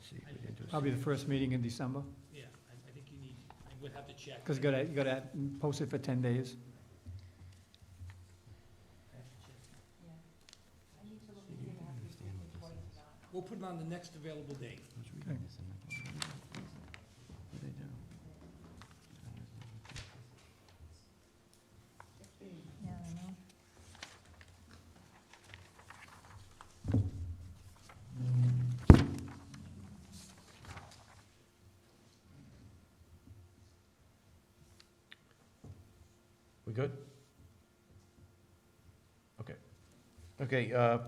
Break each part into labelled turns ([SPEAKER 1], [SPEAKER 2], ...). [SPEAKER 1] see. if we didn't do a
[SPEAKER 2] Probably the
[SPEAKER 1] second.
[SPEAKER 2] first meeting in December,
[SPEAKER 3] Yeah, I, I think you need, I would have to check.
[SPEAKER 2] because you gotta, you gotta post it for ten days.
[SPEAKER 1] See if you can understand what this is.
[SPEAKER 3] We'll put it on the next available date.
[SPEAKER 1] I was reading
[SPEAKER 2] Okay.
[SPEAKER 1] this and I thought, what do they do?
[SPEAKER 4] Yeah, I know.
[SPEAKER 1] We good? Okay. Okay, uh,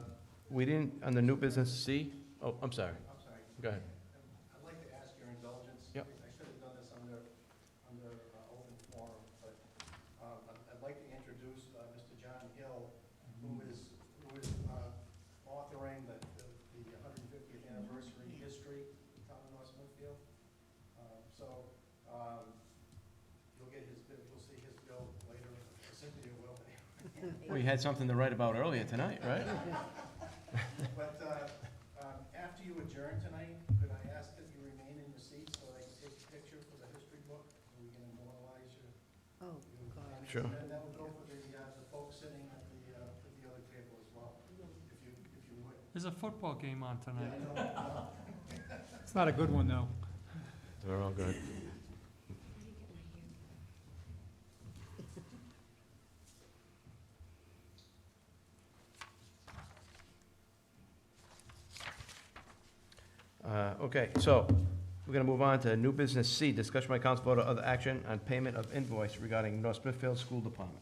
[SPEAKER 1] we didn't, on the new business C, oh, I'm sorry. I'm sorry. Go ahead.
[SPEAKER 5] I'd like to ask your indulgence.
[SPEAKER 1] Yep.
[SPEAKER 5] I should have done this under, under uh, open forum, but um, I'd- I'd like to introduce uh, Mr. John Hill, who is, who is uh, authoring the, the- the 150th anniversary history of town of North Smithfield. Um, So um, you'll get his, bid- you'll see his bill later, Cynthia will.
[SPEAKER 1] We had something to write about earlier tonight, right?
[SPEAKER 5] But uh, um, after you adjourn tonight, could I ask that you remain in your seat so I can take a picture for the history book? And we can immortalize your.
[SPEAKER 4] Oh,
[SPEAKER 5] your- and
[SPEAKER 1] Sure.
[SPEAKER 5] then that would go for the, uh, the folks sitting at the, uh, at the other table as well, if you, if you would.
[SPEAKER 3] There's a football game on
[SPEAKER 5] Yeah, I know, uh,
[SPEAKER 2] It's not a good one, though.
[SPEAKER 1] They're all good. Uh, Okay, so we're going to move on to new business C, discussion by council vote of other action on payment of invoice regarding North Smithfield School Department.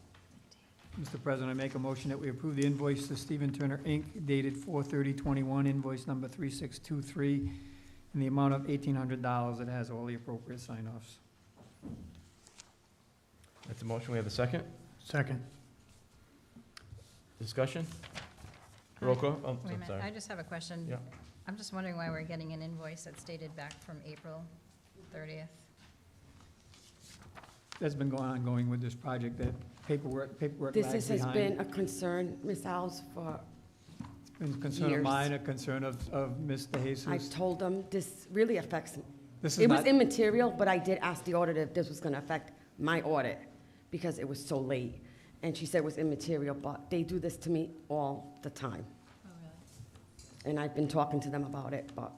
[SPEAKER 2] Mr. President, I make a motion that we approve the invoice to Stephen Turner, Inc., dated 4 21 invoice number 3623, in the amount of $1,800. It has all the appropriate sign-offs.
[SPEAKER 1] That's a motion, we have a second?
[SPEAKER 2] Second.
[SPEAKER 1] Discussion? Roll call? Oh,
[SPEAKER 4] Wait a
[SPEAKER 1] I'm
[SPEAKER 4] minute, I
[SPEAKER 1] sorry.
[SPEAKER 4] just have a question.
[SPEAKER 1] Yeah.
[SPEAKER 4] I'm just wondering why we're getting an invoice that's dated back from April thirtieth.
[SPEAKER 2] That's been going, ongoing with this project, that paperwork, paperwork
[SPEAKER 6] This
[SPEAKER 2] lags
[SPEAKER 6] is- has
[SPEAKER 2] behind.
[SPEAKER 6] been a concern, Ms. Alves, for,
[SPEAKER 2] been concern of
[SPEAKER 6] years.
[SPEAKER 2] mine, a concern of, of Mr.
[SPEAKER 6] I've
[SPEAKER 2] Jesus.
[SPEAKER 6] told them, this really affects,
[SPEAKER 2] This is
[SPEAKER 6] it was
[SPEAKER 2] not,
[SPEAKER 6] immaterial, but I did ask the audit if this was gonna affect my audit, because it was so late. And she said it was immaterial, but they do this to me all the time,
[SPEAKER 4] Oh, really?
[SPEAKER 6] and I've been talking to them about it, but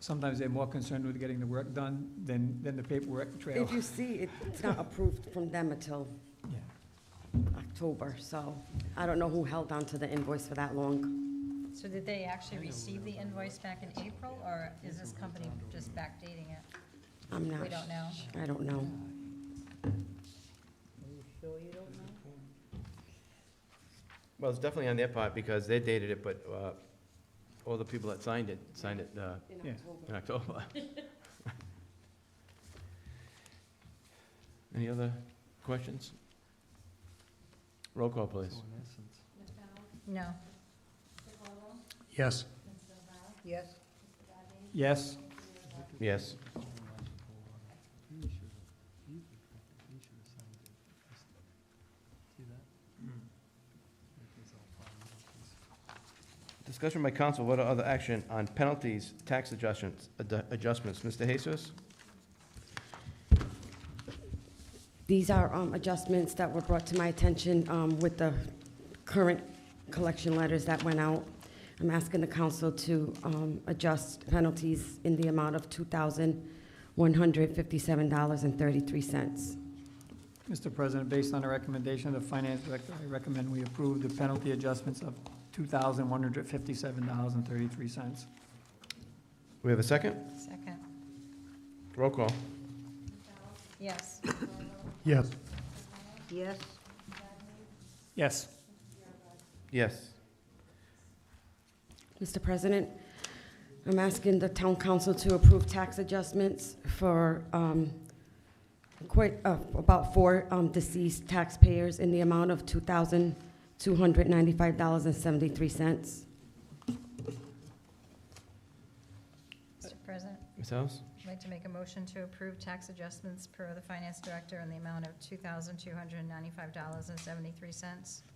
[SPEAKER 2] sometimes they're more concerned with getting the work done than, than the paperwork trail.
[SPEAKER 6] if you see, it- it's not approved from them until
[SPEAKER 2] Yeah.
[SPEAKER 6] October, so I don't know who held on to the invoice for that long.
[SPEAKER 4] So did they actually receive the invoice back in April, or is this company just backdating it?
[SPEAKER 6] I'm not.
[SPEAKER 4] We don't know.
[SPEAKER 6] I don't know.
[SPEAKER 1] Well, it's definitely on their part because they dated it, but uh, all the people that signed it, signed it uh,
[SPEAKER 2] Yeah.
[SPEAKER 1] in October. Any other questions? Roll call, please.
[SPEAKER 4] No.
[SPEAKER 5] Yes.
[SPEAKER 4] Yes.
[SPEAKER 2] Yes,
[SPEAKER 1] Yes. Discussion by council, what are other action on penalties, tax adjustments, ad- adjustments? Mr. Jesus?
[SPEAKER 6] These are um, adjustments that were brought to my attention um, with the current collection letters that went out. I'm asking the council to um, adjust penalties in the amount of $2,157.33.
[SPEAKER 2] Mr. President, based on a recommendation of the finance director, I recommend we approve the penalty adjustments of $2,157.33.
[SPEAKER 1] We have a second?
[SPEAKER 4] Second.
[SPEAKER 1] Roll call.
[SPEAKER 4] Yes.
[SPEAKER 2] Yes.
[SPEAKER 4] Yes.
[SPEAKER 2] Yes.
[SPEAKER 1] Yes.
[SPEAKER 6] Mr. President, I'm asking the town council to approve tax adjustments for um, quite, uh, about four um, deceased taxpayers in the amount of $2,295.73.
[SPEAKER 4] Mr. President,
[SPEAKER 1] Ms. House?
[SPEAKER 4] I'd like to make a motion to approve tax adjustments per the finance director in the amount of two thousand two hundred and ninety-five dollars and seventy-three cents.